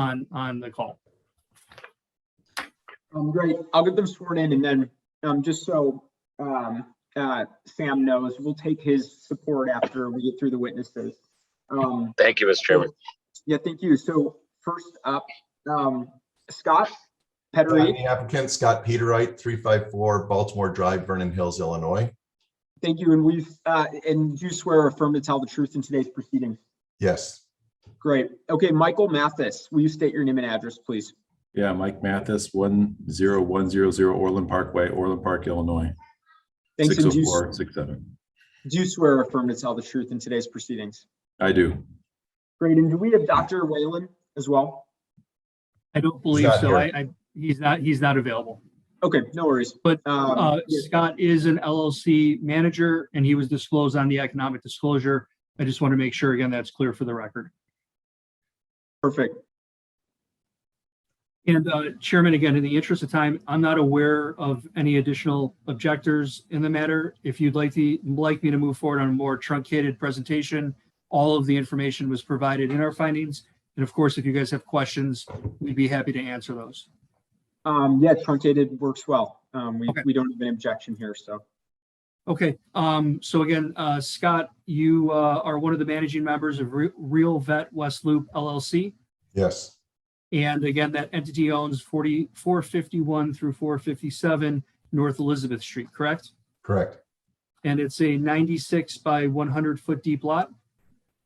on, on the call. Um, great. I'll get them sworn in and then, um, just so, um, uh, Sam knows, we'll take his support after we get through the witnesses. Um, Thank you, Mr. Chairman. yeah, thank you. So first up, um, Scott I'm Pedery, The applicant Scott Peterite, three five four Baltimore Drive, Vernon Hills, Illinois. thank you. And we've, uh, and do you swear or affirm to tell the truth in today's proceedings? Yes, Great. Okay, Michael Mathis, will you state your name and address, please? Yeah, Mike Mathis, one zero one zero zero Orland Parkway, Orland Park, Illinois. Thanks. Six And oh do you, four, six seven. do you swear or affirm to tell the truth in today's proceedings? I do. Great. And do we have Dr. Whalen as well? I don't believe not so. here. I, I, he's not, he's not available. Okay, no worries. But, Um, Uh, yeah. Scott is an LLC manager and he was disclosed on the economic disclosure. I just want to make sure again, that's clear for the record. Perfect. And uh, Chairman, again, in the interest of time, I'm not aware of any additional objectors in the matter. If you'd like the, like me to move forward on a more truncated presentation, all of the information was provided in our findings. And of course, if you guys have questions, we'd be happy to answer those. Um, yeah, truncated works well. Um, we, Okay. we don't have an objection here, so. Okay, um, so again, uh, Scott, you uh, are one of the managing members of Re- Real Vet West Loop LLC. yes, And again, that entity owns 40, 451 through 457 North Elizabeth Street, correct? correct, and it's a 96 by 100 foot deep lot,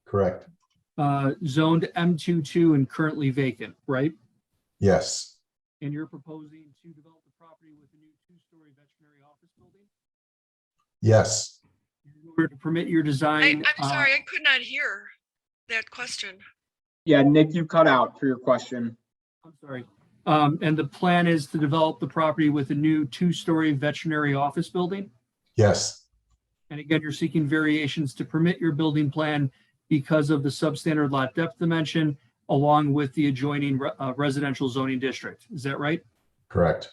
correct, uh, zoned M22 and currently vacant, right? yes, And you're proposing to develop the property with a new two-story veterinary office building? yes. In order to permit your I, design. I'm uh, sorry, I could not hear that question. Yeah, Nick, you cut out for your question. I'm sorry. Um, and the plan is to develop the property with a new two-story veterinary office building? Yes, And again, you're seeking variations to permit your building plan because of the substandard lot depth dimension along with the adjoining re- uh, residential zoning district. Is that right? correct,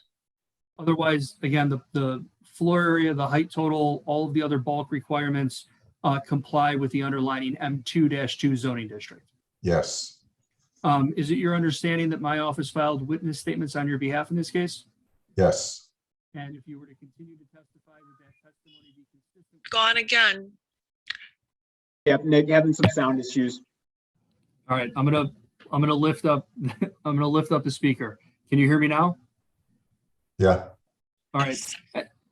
Otherwise, again, the, the floor area, the height total, all of the other bulk requirements uh, comply with the underlining M2-2 zoning district. yes, Um, Is it your understanding that my office filed witness statements on your behalf in this case? yes, And if you were to continue to testify, would that testimony be consistent? Gone again. Yep, Nick having some sound issues. All right, I'm gonna, I'm gonna lift up, I'm gonna lift up the speaker. Can you hear me now? yeah, All right,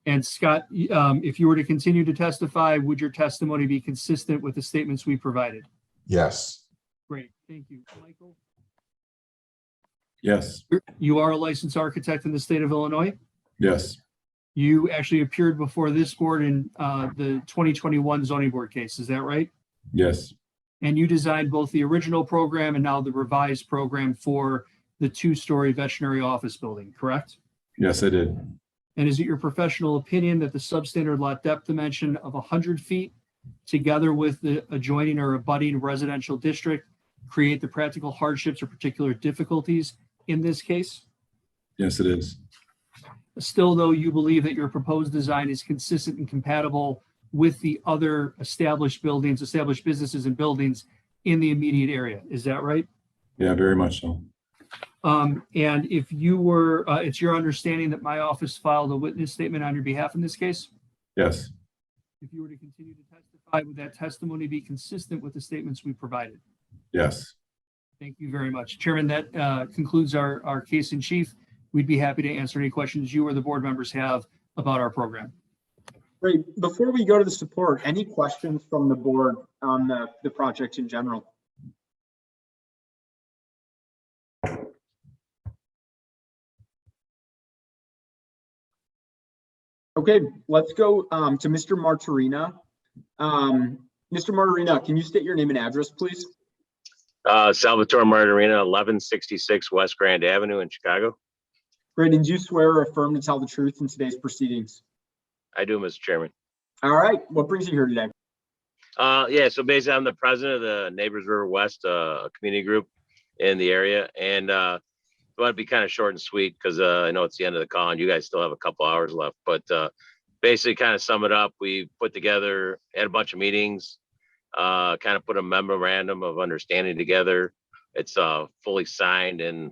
and Scott, y- um, if you were to continue to testify, would your testimony be consistent with the statements we provided? yes, Great, thank you. Michael? Yes, You are a licensed architect in the state of Illinois. yes, You actually appeared before this board in uh, the 2021 zoning board case, is that right? yes, And you designed both the original program and now the revised program for the two-story veterinary office building, correct? yes, I did. And is it your professional opinion that the substandard lot depth dimension of 100 feet, together with the adjoining or abutting residential district, create the practical hardships or particular difficulties in this case? Yes, it is. Still, though, you believe that your proposed design is consistent and compatible with the other established buildings, established businesses and buildings in the immediate area. Is that right? Yeah, very much so. Um, and if you were, uh, it's your understanding that my office filed a witness statement on your behalf in this case? Yes, If you were to continue to testify, would that testimony be consistent with the statements we provided? yes. Thank you very much. Chairman, that, uh, concludes our, our case in chief. We'd be happy to answer any questions you or the board members have about our program. Great. Before we go to the support, any questions from the board on the, the project in general? Okay, let's go um, to Mr. Martorina. Um, Mr. Martorina, can you state your name and address, please? Uh, Salvatore Martorina, eleven sixty-six West Grand Avenue in Chicago. Great. And do you swear or affirm to tell the truth in today's proceedings? I do, Mr. Chairman. All right, what brings you here today? Uh, yeah, so basically I'm the president of the Neighbors River West, uh, community group in the area. And, uh, I want to be kind of short and sweet because, uh, I know it's the end of the call and you guys still have a couple hours left, but, uh, basically kind of sum it up. We put together, had a bunch of meetings, uh, kind of put a memorandum of understanding together It's uh, fully signed and